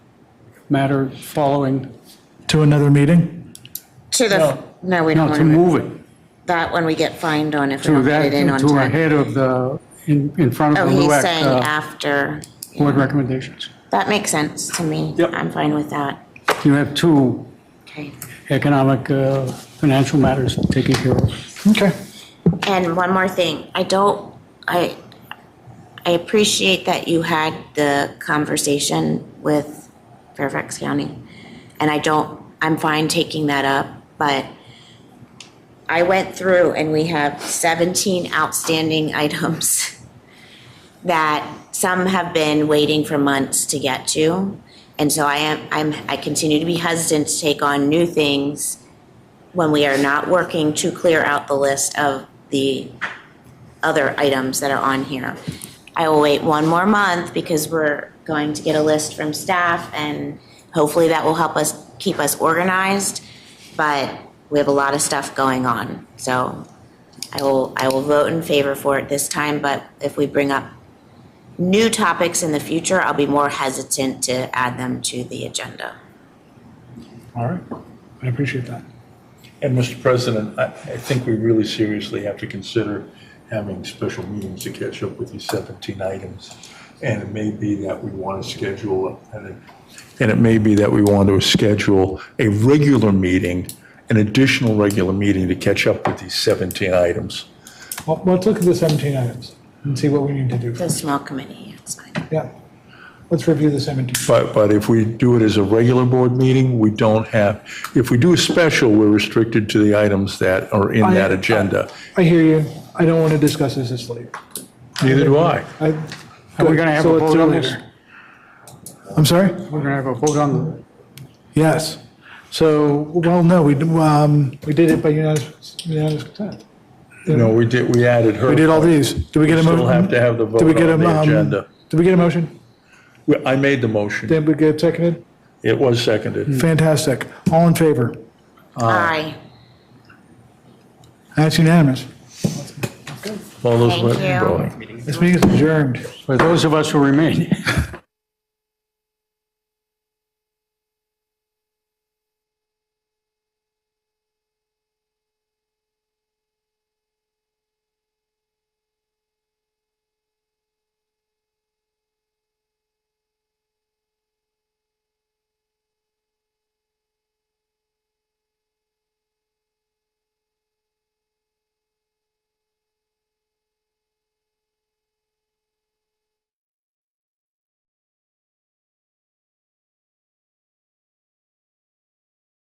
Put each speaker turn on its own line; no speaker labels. matter following,
to another meeting?
To the,
No.
no, we don't
no,
want
to
to,
move it,
that one we get fined on if we
to
don't put
that,
it in on
to
time.
ahead of the, in, in front
Oh,
of the
he's
LUAC
saying
uh,
after,
board recommendations.
that makes sense to me.
Yep.
I'm fine with that.
You have two
Okay.
economic, uh, financial matters taken care of.
Okay.
And one more thing, I don't, I, I appreciate that you had the conversation with Fairfax County. And I don't, I'm fine taking that up, but I went through and we have seventeen outstanding items that some have been waiting for months to get to. And so I am, I'm, I continue to be hesitant to take on new things when we are not working to clear out the list of the other items that are on here. I will wait one more month because we're going to get a list from staff and hopefully that will help us, keep us organized. But we have a lot of stuff going on, so I will, I will vote in favor for it this time, but if we bring up new topics in the future, I'll be more hesitant to add them to the agenda.
All right, I appreciate that.
And Mr. President, I, I think we really seriously have to consider having special meetings to catch up with these 17 items. And it may be that we want to schedule, and it, and it may be that we want to schedule a regular meeting, an additional regular meeting to catch up with these 17 items.
Well, let's look at the 17 items and see what we need to do.
The small committee, it's fine.
Yeah. Let's review the 17.
But, but if we do it as a regular board meeting, we don't have, if we do a special, we're restricted to the items that are in that
I-
agenda.
I hear you. I don't want to discuss this this late.
Neither do I.
I-
Are we gonna have
So
a vote
let's do
on
this.
this?
I'm sorry?
We're gonna have a vote on,
Yes. So, well, no, we, um, we did it by unanimous, unanimous consent.
No, we did, we added her.
We did all these. Do we get a
We
motion?
still have to have the
Did we
vote
get
on
a,
the
um,
agenda.
Did we get a motion?
Well, I made the motion.
Did we get seconded?
It was seconded.
Fantastic. All in favor?
Aye.
That's unanimous.
All those
Thank
voting.
you.
voting.
This meeting is adjourned.
for those of us who remain.